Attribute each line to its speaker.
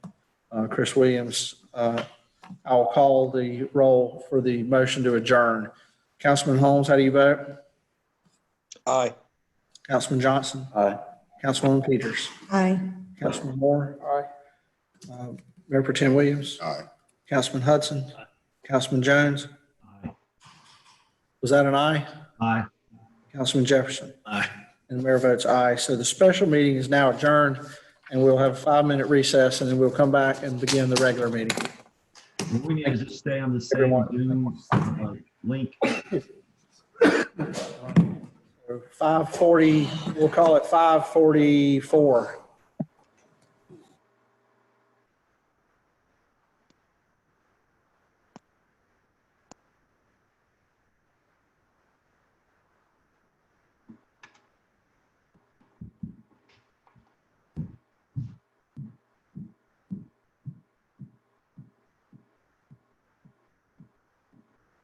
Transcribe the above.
Speaker 1: uh, Chris Williams. Uh, I'll call the roll for the motion to adjourn. Councilman Holmes, how do you vote?
Speaker 2: Aye.
Speaker 1: Councilman Johnson?
Speaker 2: Aye.
Speaker 1: Councilwoman Peters?
Speaker 3: Aye.
Speaker 1: Councilman Moore? Aye. Mayor Pro Tem Williams?
Speaker 2: Aye.
Speaker 1: Councilman Hudson? Councilman Jones? Was that an aye?
Speaker 4: Aye.
Speaker 1: Councilman Jefferson?
Speaker 4: Aye.
Speaker 1: And the mayor votes aye. So the special meeting is now adjourned, and we'll have a five-minute recess, and then we'll come back and begin the regular meeting.
Speaker 4: What We need to just stay on the same
Speaker 1: Everyone.
Speaker 4: Zoom uh, link.
Speaker 1: Five forty, we'll call it five forty-four.